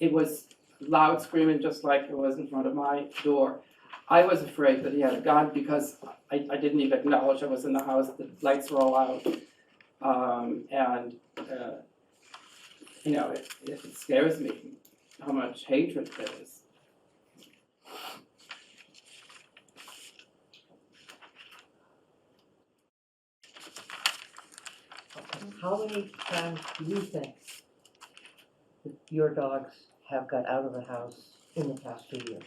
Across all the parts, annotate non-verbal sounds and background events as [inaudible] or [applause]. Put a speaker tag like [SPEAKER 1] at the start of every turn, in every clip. [SPEAKER 1] it was loud screaming, just like it was in front of my door. I was afraid that he had a gun because I, I didn't even acknowledge I was in the house, the lights were all out. Um, and, uh, you know, it, it scares me how much hatred there is.
[SPEAKER 2] How many times do you think that your dogs have got out of the house in the past two years?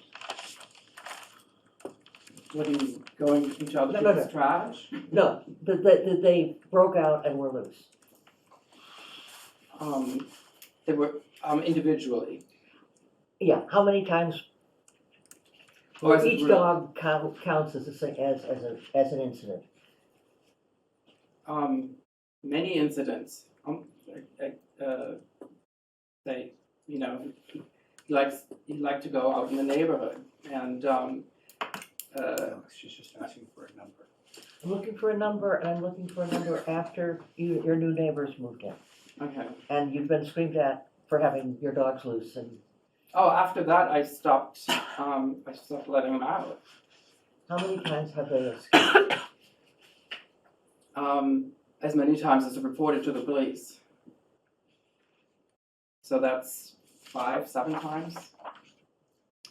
[SPEAKER 1] What are you, going to each other
[SPEAKER 2] No, no, no.
[SPEAKER 1] people's trash?
[SPEAKER 2] No, that, that, that they broke out and were loose.
[SPEAKER 1] Um, they were, um, individually.
[SPEAKER 2] Yeah, how many times,
[SPEAKER 1] Or
[SPEAKER 2] each dog count, counts as a, si- as, as a, as an incident?
[SPEAKER 1] um, many incidents. Um, I, I, uh, they, you know, he likes he like to go out in the neighborhood, and um, uh,
[SPEAKER 3] Alex, Oh, she's just asking for a number.
[SPEAKER 2] I'm looking for a number, and I'm looking for a number after you, your new neighbors moved in.
[SPEAKER 1] okay.
[SPEAKER 2] And you've been screamed at for having your dogs loose and
[SPEAKER 1] Oh, after that, I stopped. Um, I stopped letting him out.
[SPEAKER 2] how many times have they escaped?
[SPEAKER 1] um, as many times as reported to the police. So that's five, seven times.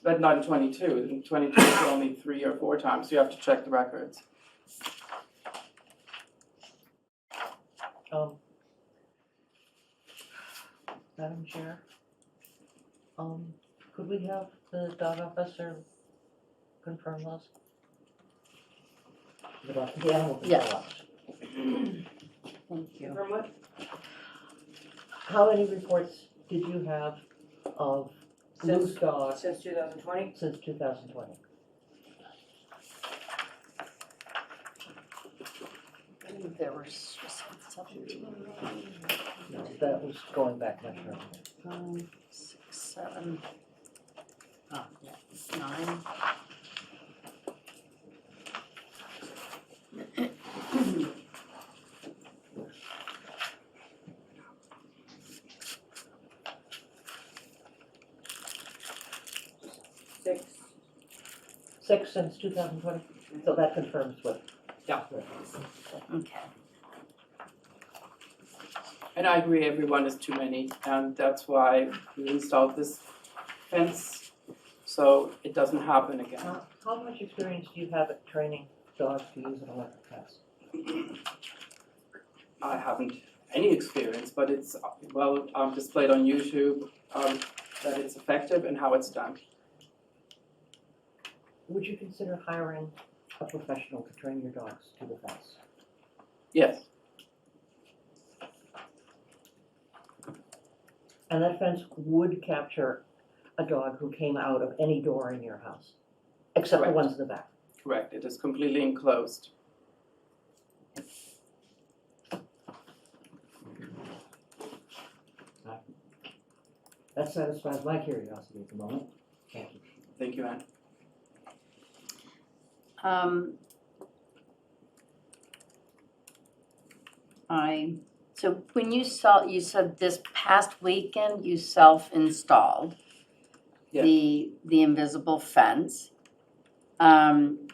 [SPEAKER 1] But not in 22. In 22, it's only three or four times. You have to check the records.
[SPEAKER 2] Um, Madam Chair, um, could we have the dog officer confirm those? The dog, the animal control officer.
[SPEAKER 4] Thank you.
[SPEAKER 1] From what?
[SPEAKER 2] How many reports did you have of loose
[SPEAKER 5] Since,
[SPEAKER 2] dogs
[SPEAKER 5] since two thousand twenty?
[SPEAKER 2] since two thousand twenty?
[SPEAKER 4] I believe there were s- seventeen,
[SPEAKER 2] That was going back much further.
[SPEAKER 4] five, six, seven, uh, yeah, nine.
[SPEAKER 5] Six.
[SPEAKER 2] Six since two thousand twenty, so that confirms what.
[SPEAKER 1] Yeah.
[SPEAKER 4] Okay.
[SPEAKER 1] And I agree, everyone is too many, and that's why we installed this fence so it doesn't happen again.
[SPEAKER 2] How, how much experience do you have at training dogs to use an electric fence?
[SPEAKER 1] I haven't any experience, but it's uh, well um, displayed on YouTube um, that it's effective and how it's done.
[SPEAKER 2] Would you consider hiring a professional to train your dogs to the fence?
[SPEAKER 1] Yes.
[SPEAKER 2] And that fence would capture a dog who came out of any door in your house, except the
[SPEAKER 1] Correct.
[SPEAKER 2] ones in the back.
[SPEAKER 1] Correct, it is completely enclosed.
[SPEAKER 2] That satisfies my curiosity at the moment. Thank you.
[SPEAKER 1] Thank you, Anne.
[SPEAKER 4] Um, I, so when you saw, you said this past weekend you self-installed
[SPEAKER 1] Yes.
[SPEAKER 4] the, the invisible fence. Um,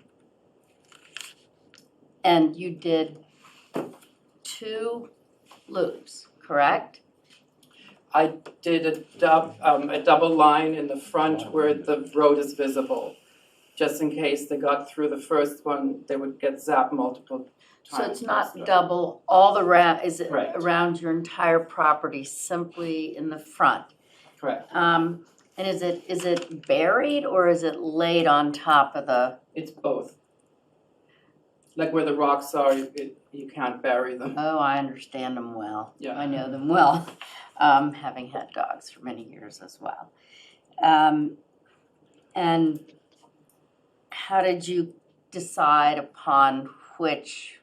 [SPEAKER 4] and you did two loops, correct?
[SPEAKER 1] I did a dub, um, a double line in the front where the road is visible, just in case they got through the first one, they would get zapped multiple
[SPEAKER 4] So
[SPEAKER 1] times.
[SPEAKER 4] it's not
[SPEAKER 1] faster.
[SPEAKER 4] double all the ra, is it
[SPEAKER 1] Correct.
[SPEAKER 4] around your entire property, simply in the front?
[SPEAKER 1] Correct,
[SPEAKER 4] Um, and is it, is it buried or is it laid on top of the,
[SPEAKER 1] it's both. Like where the rocks are, it, you can't bury them,
[SPEAKER 4] oh, I understand them well.
[SPEAKER 1] yeah.
[SPEAKER 4] I know them well, [laughs] um, having had dogs for many years as well. Um, and how did you decide upon which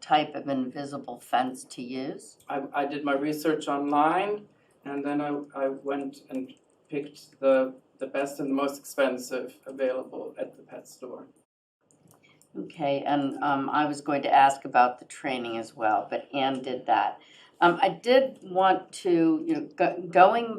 [SPEAKER 4] type of invisible fence to use?
[SPEAKER 1] I, I did my research online and then I, I went and picked the, the best and the most expensive available at the pet store.
[SPEAKER 4] Okay, and um, I was going to ask about the training as well, but Anne did that. Um, I did want to, you know, go, going